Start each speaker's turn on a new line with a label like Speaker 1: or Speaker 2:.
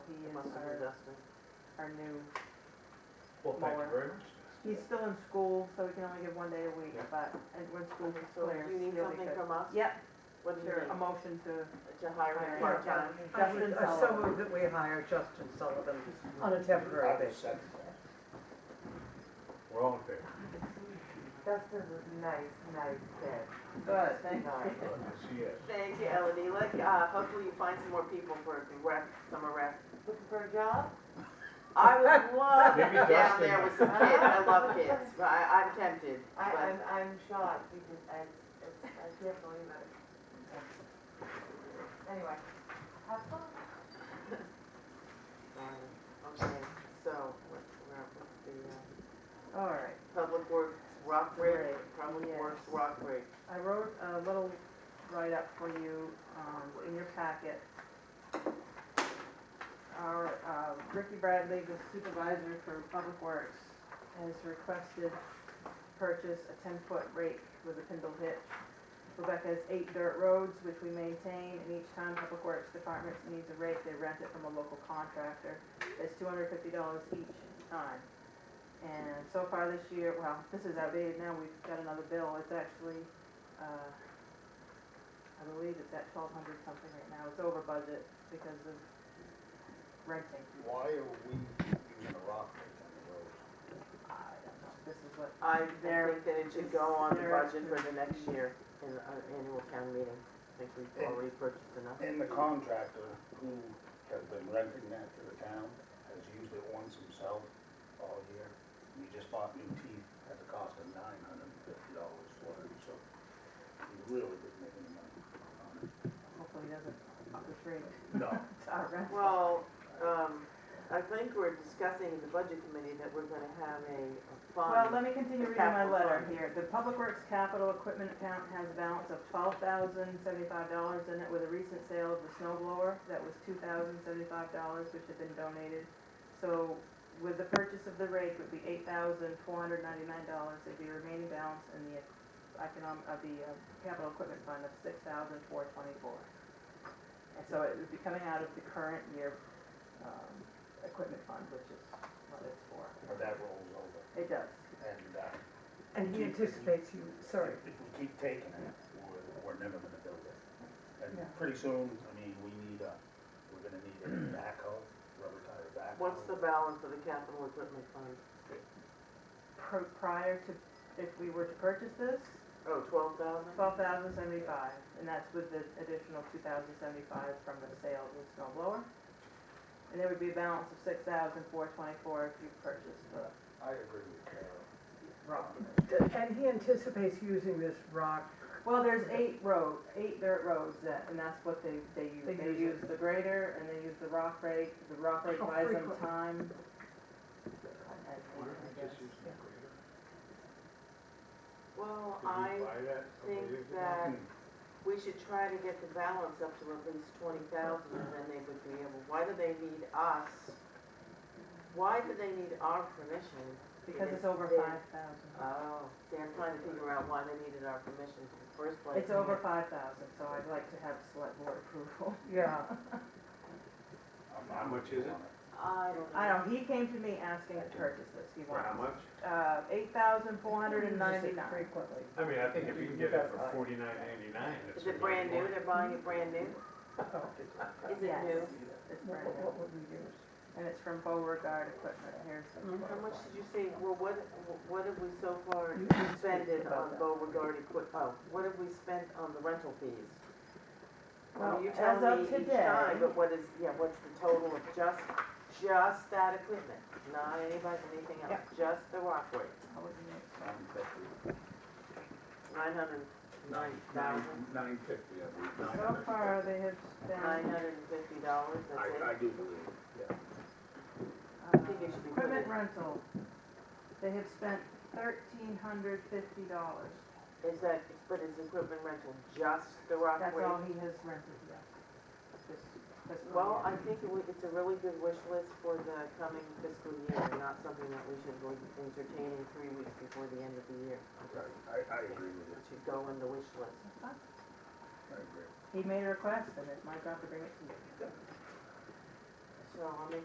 Speaker 1: Justin,
Speaker 2: uh, Our-
Speaker 1: Justin.
Speaker 2: our new,
Speaker 3: Well, thank you very much.
Speaker 2: he's still in school, so we can only give one day a week,
Speaker 3: Yeah.
Speaker 2: but, and when school is
Speaker 1: So
Speaker 2: clear,
Speaker 1: you need
Speaker 2: he'll be
Speaker 1: something
Speaker 2: good.
Speaker 1: from us?
Speaker 2: Yep,
Speaker 1: What do you
Speaker 2: sure,
Speaker 1: need?
Speaker 2: a motion to,
Speaker 1: To hire
Speaker 2: hire
Speaker 1: a
Speaker 2: him.
Speaker 1: part-time?
Speaker 4: I
Speaker 2: Justin
Speaker 4: would- I so
Speaker 2: Sullivan.
Speaker 4: move that we hire Justin Sullivan on a temporary basis.
Speaker 3: We're all in favor.
Speaker 5: Dustin's a nice, nice kid.
Speaker 2: Good, thank
Speaker 5: Nice.
Speaker 3: Good, Yes, he is.
Speaker 1: Thank you, Elodie. Let, uh, hopefully you find some more people for the rec, summer rec.
Speaker 5: Looking for a job?
Speaker 1: I would love to
Speaker 3: Maybe
Speaker 1: be down
Speaker 3: Dustin-
Speaker 1: there with some kids. I love kids. but I, I'm tempted.
Speaker 5: I,
Speaker 1: but-
Speaker 5: I'm, I'm shocked because I, it's, I can't believe it. Anyway, have fun.
Speaker 1: um, Okay, so what's, what's the, uh,
Speaker 2: all right.
Speaker 1: Public Works Rockbridge,
Speaker 2: Right,
Speaker 1: Public
Speaker 2: yes.
Speaker 1: Works Rockbridge.
Speaker 2: I wrote a little write-up for you um, in your packet. Our uh, Ricky Bradley, the supervisor for Public Works, has requested purchase a ten-foot rake with a spindle hitch. Quebec has eight dirt roads which we maintain, and each time Public Works Department needs a rake, they rent it from a local contractor. It's two hundred fifty dollars each time. And so far this year, well, this is outdated now, we've got another bill, it's actually, uh, I believe it's at twelve hundred something right now, it's over budget because of renting.
Speaker 6: Why are we using a rock rake on the road?
Speaker 2: I don't know, this is what,
Speaker 1: I
Speaker 2: There
Speaker 1: think that it should go on the
Speaker 2: there-
Speaker 1: budget for the next year in an annual town meeting. I think we've already purchased enough.
Speaker 6: And the contractor who has been renting that to the town has used it once himself all year. He just bought new teeth at the cost of nine hundred and fifty dollars for it, so he really didn't make any money on it.
Speaker 2: hopefully doesn't up the rate
Speaker 6: No.
Speaker 2: to our rent.
Speaker 1: Well, um, I think we're discussing in the budget committee that we're gonna have a a fund.
Speaker 2: Well, let me continue
Speaker 1: The
Speaker 2: reading my
Speaker 1: capital
Speaker 2: letter
Speaker 1: fund.
Speaker 2: here. The Public Works Capital Equipment Account has a balance of twelve thousand seventy-five dollars in it with a recent sale of the snow blower. That was two thousand seventy-five dollars, which had been donated. So with the purchase of the rake would be eight thousand four hundred ninety-nine dollars. There'd be a remaining balance in the economic, of the uh, capital equipment fund of six thousand four twenty-four. And so it would be coming out of the current year, um, equipment fund, which is what it's for.
Speaker 6: But that rolls over
Speaker 2: It does.
Speaker 6: and, uh,
Speaker 4: And he anticipates you, sorry,
Speaker 6: if we keep taking it, we're, we're never gonna build it. And
Speaker 4: Yeah.
Speaker 6: pretty soon, I mean, we need a, we're gonna need a backhoe, rubber tire backhoe.
Speaker 1: What's the balance of the capital equipment fund?
Speaker 2: pr- prior to, if we were to purchase this,
Speaker 1: Oh, twelve thousand?
Speaker 2: twelve thousand seventy-five, and that's with the additional two thousand seventy-five from the sale of the snow blower. And there would be a balance of six thousand four twenty-four if you purchased the,
Speaker 6: I agree with Carol.
Speaker 4: and he anticipates using this rock,
Speaker 2: well, there's eight roads, eight dirt roads that, and that's what they, they use.
Speaker 4: They
Speaker 2: They use
Speaker 4: use
Speaker 2: the grader and they use the rock rake, the rock rake
Speaker 4: How
Speaker 2: buys them
Speaker 4: frequent?
Speaker 2: time.
Speaker 3: Why don't we just use the
Speaker 1: Well,
Speaker 3: grader?
Speaker 1: I
Speaker 3: Did we buy that a couple
Speaker 1: think
Speaker 3: years ago?
Speaker 1: that we should try to get the balance up to at least twenty thousand, and then they would be able, why do they need us? Why do they need our permission?
Speaker 2: Because it's over
Speaker 1: They-
Speaker 2: five thousand.
Speaker 1: Oh, see, I'm trying to figure out why they needed our permission in the first place.
Speaker 2: It's over five thousand, so I'd like to have select board approval.
Speaker 4: yeah.
Speaker 6: I'm-
Speaker 3: How
Speaker 6: I'm
Speaker 3: much
Speaker 6: with you
Speaker 3: is it?
Speaker 6: on
Speaker 1: I don't know.
Speaker 2: I know, he came to me asking to purchase this, he
Speaker 3: For how
Speaker 2: wants,
Speaker 3: much?
Speaker 2: uh, eight thousand four hundred and
Speaker 4: Uses it
Speaker 2: ninety-nine.
Speaker 4: Frequently.
Speaker 3: I mean, I think if you can get it for forty-nine ninety-nine, it's.
Speaker 1: Is it brand new? They're buying it brand new? Is it
Speaker 2: Yes.
Speaker 1: new?
Speaker 2: It's
Speaker 4: What
Speaker 2: brand
Speaker 4: what
Speaker 2: new,
Speaker 4: would we use?
Speaker 2: and it's from Beauregard Equipment, here's. the
Speaker 4: Mhm.
Speaker 1: Mm-hmm. How much
Speaker 2: quote.
Speaker 1: did you say, well, what, what have we so far
Speaker 4: You can speak
Speaker 1: expended
Speaker 4: about
Speaker 1: on
Speaker 4: that.
Speaker 1: Beauregard equip, oh, what have we spent on the rental fees? Well,
Speaker 2: Well,
Speaker 1: you
Speaker 2: as
Speaker 1: tell
Speaker 2: of
Speaker 1: me each
Speaker 2: today-
Speaker 1: time, but what is, yeah, what's the total of just, just that equipment? Not anybody, anything else, just the rock rake,
Speaker 2: How would you make-
Speaker 6: it. Nine fifty.
Speaker 1: nine hundred nine thousand,
Speaker 6: Nine fifty, I believe.
Speaker 2: So
Speaker 6: 950.
Speaker 2: far, they have spent,
Speaker 1: nine hundred and fifty dollars, that's it.
Speaker 6: I, I do believe, yeah.
Speaker 2: uh,
Speaker 1: think it should be
Speaker 2: equipment
Speaker 1: included.
Speaker 2: rental, they have spent thirteen hundred fifty dollars.
Speaker 1: Is that, but is equipment rental just the rock
Speaker 2: That's
Speaker 1: rake?
Speaker 2: all he has rented, yes. This- this
Speaker 1: Well, I
Speaker 2: year.
Speaker 1: think it would- it's a really good wish list for the coming fiscal year, and not something that we should go entertaining three weeks before the end of the year.
Speaker 6: I, I agree with
Speaker 1: It
Speaker 6: it,
Speaker 1: should go in the wish list.
Speaker 6: I agree.
Speaker 2: He made a request, and it's my job to bring it to you.
Speaker 1: So I'll make